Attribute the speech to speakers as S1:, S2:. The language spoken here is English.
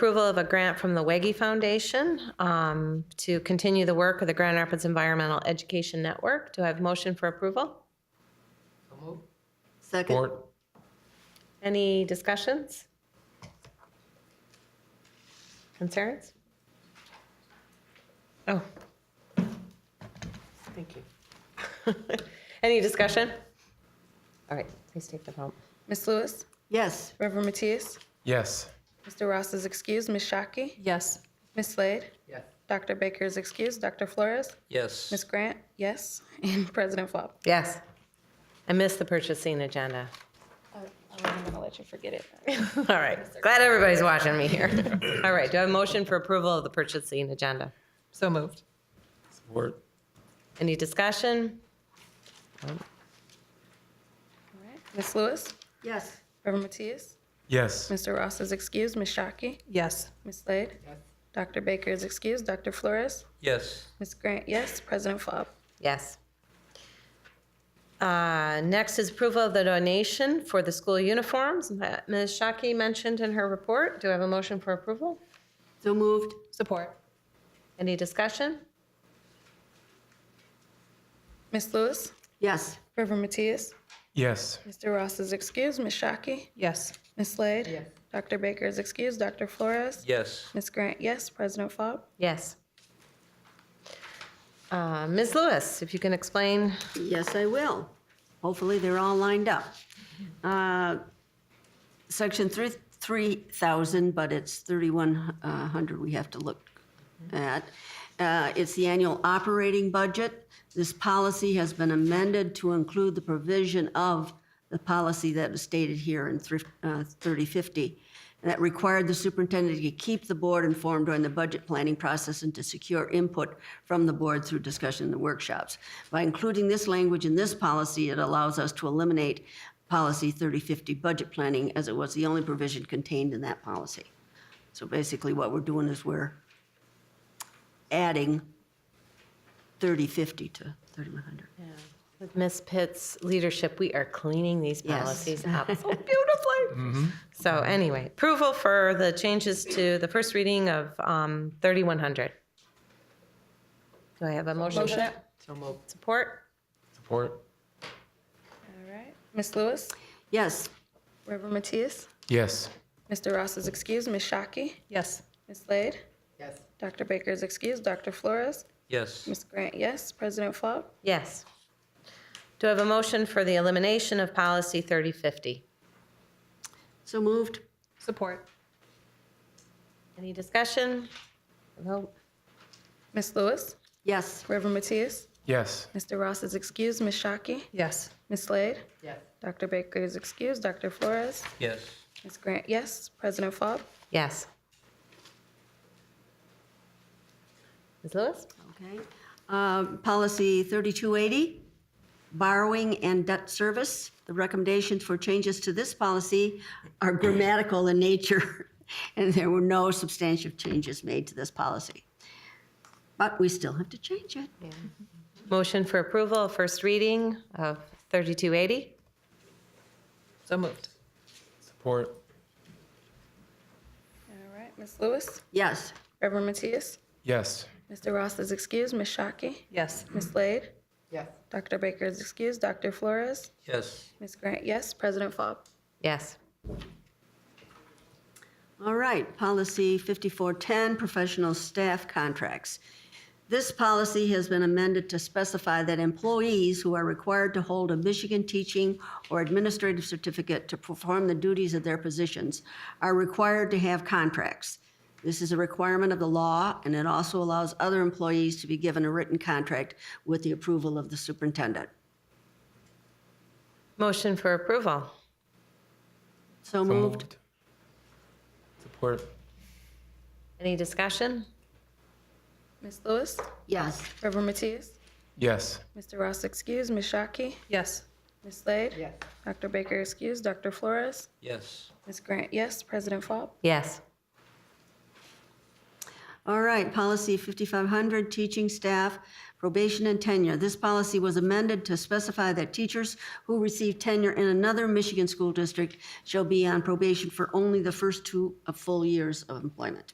S1: Approval of a grant from the Weggy Foundation um, to continue the work of the Grand Rapids Environmental Education Network. Do I have a motion for approval?
S2: Second.
S3: Support.
S1: Any discussions? Concerns? Oh. Thank you. Any discussion? All right, please take the vote.
S4: Ms. Lewis,
S2: Yes.
S4: Reverend Matthias,
S3: Yes.
S4: Mr. Ross is excused, Ms. Shockey,
S5: Yes.
S4: Ms. Slade,
S2: Yes.
S4: Dr. Baker is excused, Dr. Flores,
S6: Yes.
S4: Ms. Grant, yes, and President Faub.
S1: Yes. I missed the purchasing agenda.
S4: Oh, I'm gonna let you forget it.
S1: All right, glad everybody's watching me here. All right, do I have a motion for approval of the purchasing agenda?
S5: So moved.
S3: Support.
S1: Any discussion?
S4: All right. Ms. Lewis,
S2: Yes.
S4: Reverend Matthias,
S3: Yes.
S4: Mr. Ross is excused, Ms. Shockey,
S5: Yes.
S4: Ms. Slade, Dr. Baker is excused, Dr. Flores,
S6: Yes.
S4: Ms. Grant, yes, President Faub.
S1: Yes. Uh, Next is approval of the donation for the school uniforms that Ms. Shockey mentioned in her report. Do I have a motion for approval?
S2: So moved.
S5: Support.
S1: Any discussion?
S4: Ms. Lewis,
S2: Yes.
S4: Reverend Matthias,
S3: Yes.
S4: Mr. Ross is excused, Ms. Shockey,
S5: Yes.
S4: Ms. Slade, Dr. Baker is excused, Dr. Flores,
S6: Yes.
S4: Ms. Grant, yes, President Faub.
S1: Yes. Uh, Ms. Lewis, if you can explain.
S2: Yes, I will. Hopefully, they're all lined up. Uh, Section three, 3,000, but it's 3,100 we have to look at. Uh, It's the annual operating budget. This policy has been amended to include the provision of the policy that was stated here in thrif- uh, 3050, and that required the superintendent to keep the board informed during the budget planning process and to secure input from the board through discussion in the workshops. By including this language in this policy, it allows us to eliminate Policy 3050 budget planning, as it was the only provision contained in that policy. So basically, what we're doing is we're adding 3050 to 3100.
S1: With Ms. Pitt's leadership, we are cleaning these
S2: Yes.
S1: policies up so beautifully. So anyway, approval for the changes to the first reading of um, 3100. Do I have a motion? for that? Support?
S3: Support.
S4: All right. Ms. Lewis,
S2: Yes,
S4: Reverend Matthias,
S3: Yes.
S4: Mr. Ross is excused, Ms. Shockey,
S5: Yes.
S4: Ms. Slade. Yes. Dr. Baker is excused, Dr. Flores,
S6: Yes.
S4: Ms. Grant, yes, President Faub.
S1: Yes. Do I have a motion for the elimination of policy 3050?
S2: so moved.
S5: Support.
S1: Any discussion? Vote.
S4: Ms. Lewis,
S2: Yes,
S4: Reverend Matthias,
S3: Yes.
S4: Mr. Ross is excused, Ms. Shockey,
S5: Yes.
S4: Ms. Slade. Yes. Dr. Baker is excused, Dr. Flores,
S6: Yes.
S4: Ms. Grant, yes, President Faub.
S1: Yes. Ms. Lewis?
S2: okay. Um, Policy 3280, borrowing and debt service. The recommendations for changes to this policy are grammatical in nature, and there were no substantive changes made to this policy. But we still have to change it.
S1: Motion for approval of first reading of 3280?
S5: So moved.
S3: Support.
S4: All right, Ms. Lewis,
S2: Yes,
S4: Reverend Matthias,
S3: Yes.
S4: Mr. Ross is excused, Ms. Shockey,
S5: Yes.
S4: Ms. Slade. Yes. Dr. Baker is excused, Dr. Flores,
S6: Yes.
S4: Ms. Grant, yes, President Faub.
S1: Yes.
S2: All right, policy 5410, professional staff contracts. This policy has been amended to specify that employees who are required to hold a Michigan teaching or administrative certificate to perform the duties of their positions are required to have contracts. This is a requirement of the law, and it also allows other employees to be given a written contract with the approval of the superintendent.
S1: Motion for approval?
S2: So
S3: So
S2: moved.
S3: Support.
S1: Any discussion?
S4: Ms. Lewis,
S2: Yes.
S4: Reverend Matthias,
S3: Yes.
S4: Mr. Ross excused, Ms. Shockey,
S5: Yes.
S4: Ms. Slade. Yes. Dr. Baker excused, Dr. Flores,
S6: Yes.
S4: Ms. Grant, yes, President Faub.
S1: Yes.
S2: All right, policy 5500, teaching staff, probation and tenure. This policy was amended to specify that teachers who receive tenure in another Michigan school district shall be on probation for only the first two full uh, years of employment.